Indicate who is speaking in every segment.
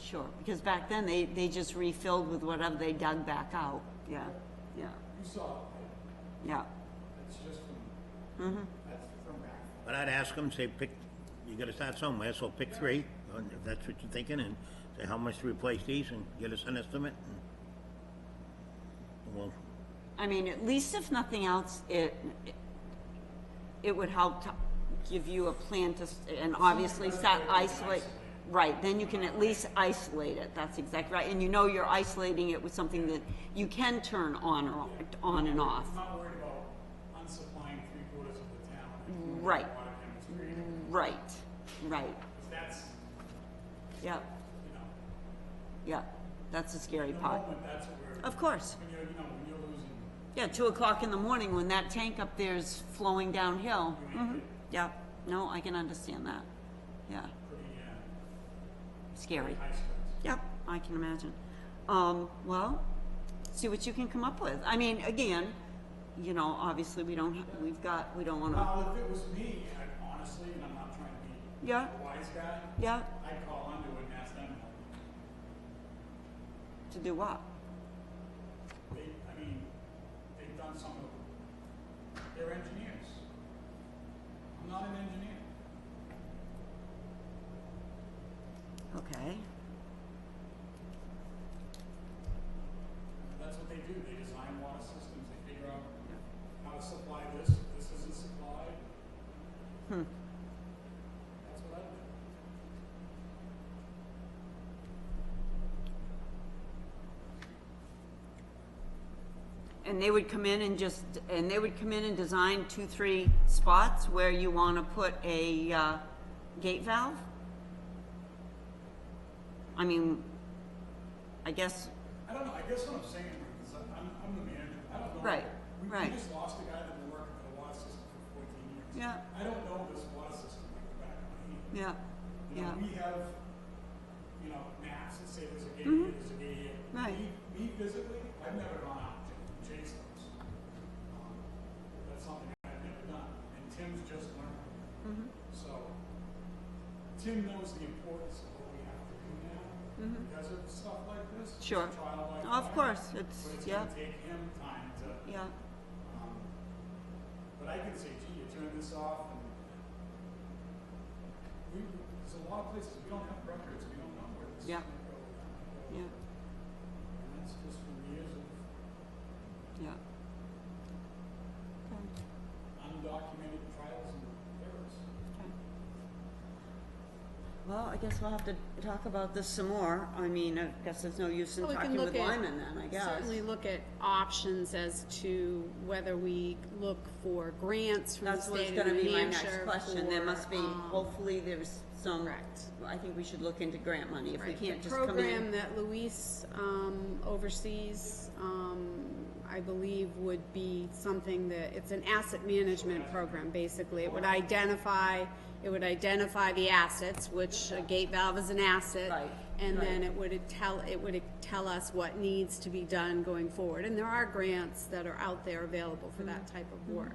Speaker 1: Sure, because back then, they, they just refilled with whatever they dug back out, yeah, yeah,
Speaker 2: You saw it,
Speaker 1: yeah.
Speaker 2: it's just from, that's from back.
Speaker 3: But I'd ask them, say, pick, you gotta start somewhere, so pick three, and if that's what you're thinking, and say how much to replace these, and get us an estimate. and- and Well,
Speaker 1: I mean, at least if nothing else, it, it would help to give you a plan to, s- and obviously start isolate. Right, then you can at least isolate it, that's exactly right, and you know you're isolating it with something that you can turn on or, on and off.
Speaker 4: I'm not worried about unsupplying three quarters of the town.
Speaker 1: Right.
Speaker 4: Water chemistry,
Speaker 1: Right, right,
Speaker 4: 'cause that's,
Speaker 1: yep,
Speaker 4: you know,
Speaker 1: yep, that's the scary
Speaker 4: the
Speaker 1: part.
Speaker 4: moment that's what we're,
Speaker 1: Of course.
Speaker 4: when you're, you know, when you're losing,
Speaker 1: Yeah, two o'clock in the morning when that tank up there's flowing downhill. Mhm. Yeah, no, I can understand that. Yeah,
Speaker 4: pretty, uh,
Speaker 1: scary.
Speaker 4: high stress.
Speaker 1: Yep, I can imagine. Um, well, see what you can come up with. I mean, again, you know, obviously we don't, ha- we've got, we don't wanna,
Speaker 4: Now, if it was me, I honestly, and I'm not trying to be
Speaker 1: yeah,
Speaker 4: a wise guy,
Speaker 1: yeah,
Speaker 4: I'd call Underwood and ask them, help.
Speaker 1: to do what?
Speaker 4: they, I mean, they've done some of, they're engineers. I'm not an engineer.
Speaker 1: Okay,
Speaker 4: That's what they do, they design water systems, they figure out how to supply this, this isn't supplied.
Speaker 1: Hmm.
Speaker 4: That's what I do.
Speaker 1: and they would come in and just, and they would come in and design two, three spots where you wanna put a, uh, gate valve? I mean, I guess,
Speaker 4: I don't know, I guess what I'm saying, Rick, is I'm, I'm I'm the manager, I don't know.
Speaker 1: Right,
Speaker 4: We-
Speaker 1: right.
Speaker 4: We just lost a guy that been working for the water system for fourteen years.
Speaker 1: Yeah.
Speaker 4: I don't know this water system like the back of my hand.
Speaker 1: yeah,
Speaker 4: You
Speaker 1: yeah,
Speaker 4: know, we have, you know, maps that say there's a gate here, there's a gate here.
Speaker 1: Mm-hmm. Right.
Speaker 4: Me, me physically, I've never gone out to chase those. Um, That's something I've never done, and Tim's just learned.
Speaker 1: Mm-hmm.
Speaker 4: So, Tim knows the importance of what we have to do now because of stuff like this. It's a
Speaker 1: Mm-hmm. Sure.
Speaker 4: trial by
Speaker 1: Oh, Of
Speaker 4: fire,
Speaker 1: course, it's-
Speaker 4: But it's
Speaker 1: yeah.
Speaker 4: gonna take him time to,
Speaker 1: yeah,
Speaker 4: um, but I can say, gee, you turn this off and we, there's a lot of places we don't have records, we don't know where this is
Speaker 1: Yeah.
Speaker 4: gonna go.
Speaker 1: yeah,
Speaker 4: And that's just from years of
Speaker 1: yeah. Okay.
Speaker 4: undocumented trials and errors.
Speaker 1: Okay. Well, I guess we'll have to talk about this some more. I mean, I guess there's no use in
Speaker 5: Well, we
Speaker 1: talking
Speaker 5: can look
Speaker 1: with
Speaker 5: at-
Speaker 1: Lyman then, I guess.
Speaker 5: Certainly look at options as to whether we look for grants from the
Speaker 1: That's what's
Speaker 5: state of
Speaker 1: gonna be
Speaker 5: New
Speaker 1: my next
Speaker 5: Hampshire
Speaker 1: question. There must be,
Speaker 5: for, um,
Speaker 1: hopefully there's some,
Speaker 5: Correct.
Speaker 1: I think we should look into grant money if we
Speaker 5: right,
Speaker 1: can't
Speaker 5: the
Speaker 1: just come
Speaker 5: program
Speaker 1: in.
Speaker 5: that Luis, um, oversees, um, I believe would be something that, it's an asset management program, basically. It would identify, it would identify the assets, which a gate valve is an asset.
Speaker 1: Right,
Speaker 5: And
Speaker 1: right.
Speaker 5: then it would tell, it would tell us what needs to be done going forward. And there are grants that are out there available for that
Speaker 1: Mm-hmm.
Speaker 5: type of work.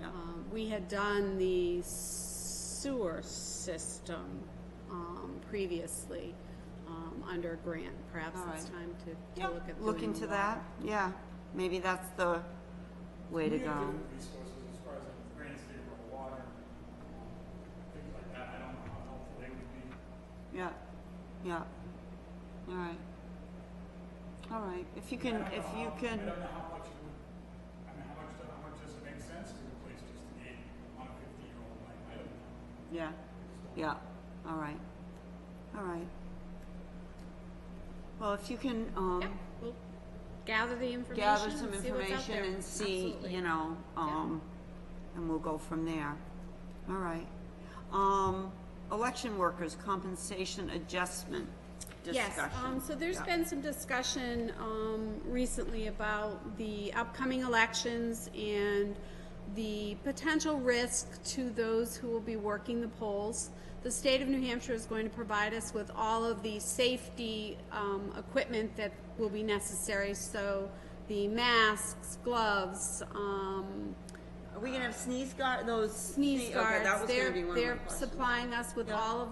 Speaker 1: Yeah.
Speaker 5: Um, we had done the sewer system, um, previously, um, under a grant. Perhaps
Speaker 1: All
Speaker 5: it's
Speaker 1: right.
Speaker 5: time to,
Speaker 1: Yeah,
Speaker 5: to look at doing
Speaker 1: Look into
Speaker 5: water.
Speaker 1: that, yeah. Maybe that's the way to
Speaker 4: We have
Speaker 1: go.
Speaker 4: different resources as far as like grants, they were water, um, things like that, I don't know how helpful they would be.
Speaker 1: Yeah, yeah. All right. All right, if you
Speaker 4: I
Speaker 1: can,
Speaker 4: don't know
Speaker 1: if you
Speaker 4: how- I
Speaker 1: can.
Speaker 4: don't know how much, it would- I mean, how much, how much does it make sense to replace just the gate on a fifty-year-old line? I don't know.
Speaker 1: Yeah, yeah, all right, all right. Well, if you can, um,
Speaker 5: Yeah, we'll gather the information.
Speaker 1: gather some
Speaker 5: and see what's out
Speaker 1: information
Speaker 5: there.
Speaker 1: and see,
Speaker 5: Absolutely.
Speaker 1: you know, um, and we'll go from there. All right. Um, election workers' compensation adjustment discussion.
Speaker 5: Yes, um, so there's
Speaker 1: Yeah.
Speaker 5: been some discussion, um, recently about the upcoming elections and the potential risk to those who will be working the polls. The state of New Hampshire is going to provide us with all of the safety, um, equipment that will be necessary, so the masks, gloves, um,
Speaker 1: Are we gonna have sneeze guard, those?
Speaker 5: sneeze
Speaker 1: sne- okay, that
Speaker 5: guards,
Speaker 1: was gonna
Speaker 5: they're,
Speaker 1: be one of my
Speaker 5: they're
Speaker 1: questions.
Speaker 5: supplying us with all of